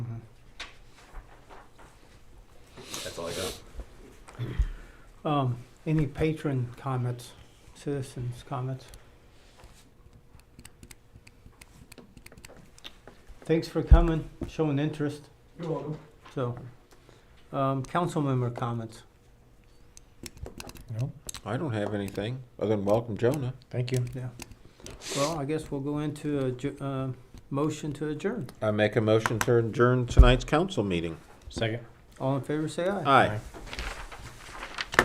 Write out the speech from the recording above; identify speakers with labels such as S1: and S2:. S1: Um, any patron comments, citizens comments? Thanks for coming, showing interest,
S2: You're welcome.
S1: so, um, council member comments.
S3: No,
S4: I don't have anything other than welcome Jonah.
S3: thank you.
S1: Well, I guess we'll go into a, ju- uh, motion to adjourn.
S4: I make a motion to adjourn tonight's council meeting.
S3: Second.
S1: All in favor, say aye.
S4: Aye.